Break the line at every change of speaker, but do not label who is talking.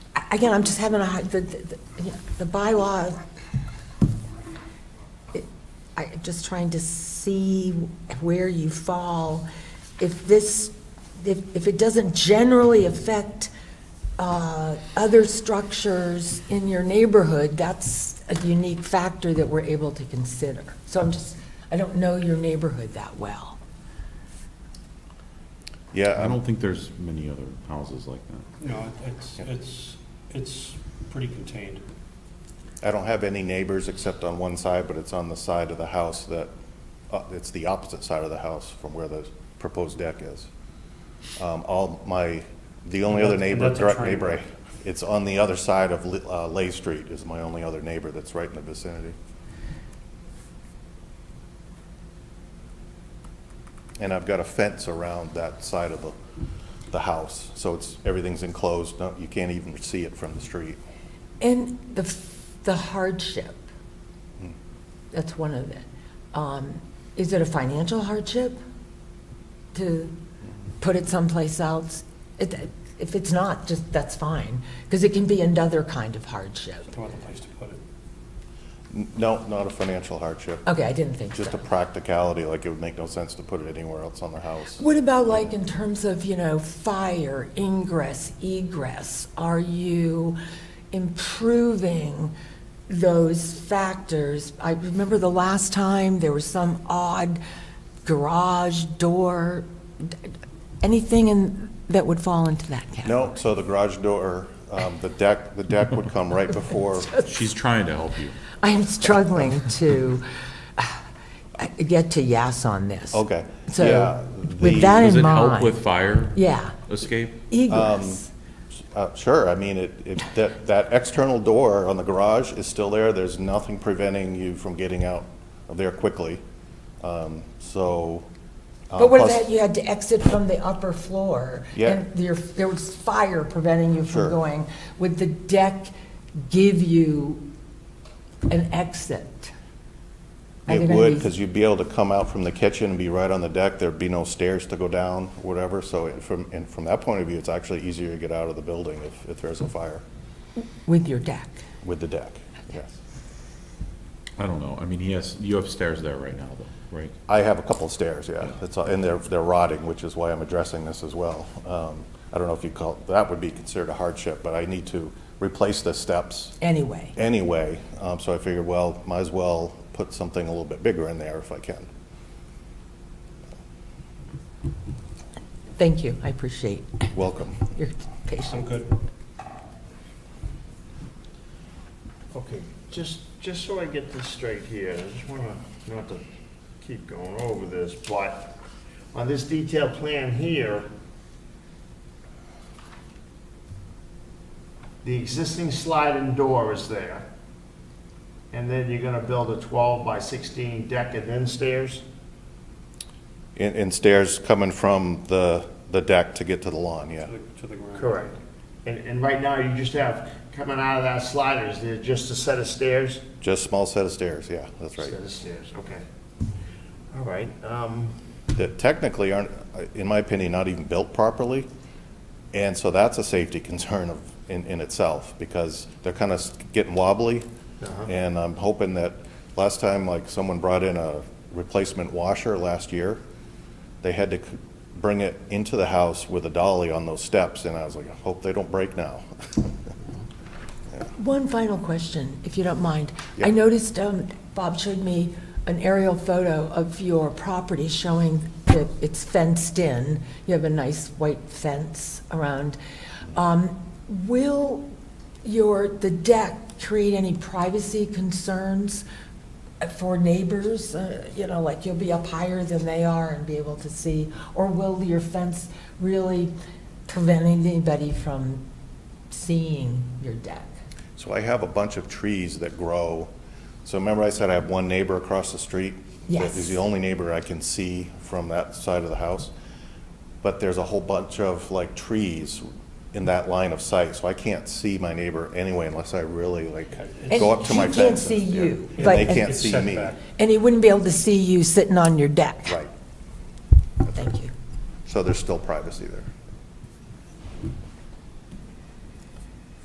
again, I'm just having a hard, the, the, the- yeah, the bylaw, it- I'm just trying to see where you fall. If this, if, if it doesn't generally affect, uh, other structures in your neighborhood, that's a unique factor that we're able to consider. So I'm just, I don't know your neighborhood that well.
Yeah,
I
I'm-
don't think there's many other houses like that.
No, it- it's, it's, it's pretty contained.
I don't have any neighbors except on one side, but it's on the side of the house that, uh, it's the opposite side of the house from where the proposed deck is. Um, All my, the only other
And that's- and
neighbor,
that's a
direct
train
neighbor,
wreck.
it's on the other side of Li- uh, Lay Street is my only other neighbor that's right in the vicinity. And I've got a fence around that side of the, the house, so it's, everything's enclosed, no- you can't even see it from the street.
And the, f- the hardship,
Hmm.
that's one of it. Um, Is it a financial hardship to put it someplace else? It- If it's not, just, that's fine, because it can be another kind of hardship.
No other place to put it.
N- No, not a financial hardship.
Okay, I didn't think so.
Just a practicality, like it would make no sense to put it anywhere else on their house.
What about like in terms of, you know, fire, ingress, egress? Are you improving those factors? I remember the last time there was some odd garage door, anything in, that would fall into that category?
No, so the garage door, um, the deck, the deck would come right before,
She's trying to help you.
I am struggling to uh, get to yes on this.
okay.
So,
yeah,
with
the-
that
Does
in
it help
mind.
with fire
Yeah,
escape?
egress.
uh, Sure, I mean, it, it, that, that external door on the garage is still there. There's nothing preventing you from getting out of there quickly. Um, So. uh,
But what if
plus-
that you had to exit from the upper floor?
Yeah.
And there, there was fire preventing you from
Sure.
going. Would the deck give you an exit? Are
It
there gonna
would,
be-
because you'd be able to come out from the kitchen and be right on the deck. There'd be no stairs to go down, whatever. So it- from, and from that point of view, it's actually easier to get out of the building if, if there's a fire
With your deck?
with the deck, yes.
I don't know. I mean, he has, you have stairs there right now, though, right?
I have a couple of stairs, yeah. It's, all- and they're, they're rotting, which is why I'm addressing this as well. Um, I don't know if you call, that would be considered a hardship, but I need to replace the steps
Anyway,
anyway. Um, So I figured, well, might as well put something a little bit bigger in there if I can.
thank you, I appreciate
Welcome.
your
I'm
patience.
good.
Okay, just, just so I get this straight here, I just wanna, not to keep going over this, but on this detailed plan here, the existing sliding door is there, and then you're gonna build a twelve by sixteen deck and then stairs?
And, and stairs coming from the, the deck to get to the lawn, yeah.
To the- To the ground.
Correct. And, and right now, you just have, coming out of that slider, is there just a set of stairs?
Just small set of stairs, yeah, that's right.
Set of stairs, okay. All right, um,
That technically aren't, in my opinion, not even built properly. And so that's a safety concern of, in, in itself, because they're kind of getting wobbly. And I'm hoping that, last time, like, someone brought in a replacement washer last year, they had to c- bring it into the house with a dolly on those steps, and I was like, I hope they don't break now.
One final question, if you don't mind.
Yeah.
I noticed um, Bob showed me an aerial photo of your property showing that it's fenced in. You have a nice white fence around. Um, Will your, the deck create any privacy concerns for neighbors? Uh, You know, like you'll be up higher than they are and be able to see? Or will your fence really prevent anybody from seeing your deck?
So I have a bunch of trees that grow. So remember I said I have one neighbor across the street?
Yes.
That is the only neighbor I can see from that side of the house. But there's a whole bunch of like trees in that line of sight, so I can't see my neighbor anyway unless I really like go up to my
And
fence.
he can't see
and- yeah.
you,
And
but-
they can't
It's
see
set
me.
back.
And he wouldn't be able to see you sitting on your deck.
Right.
Thank you.
So there's still privacy there.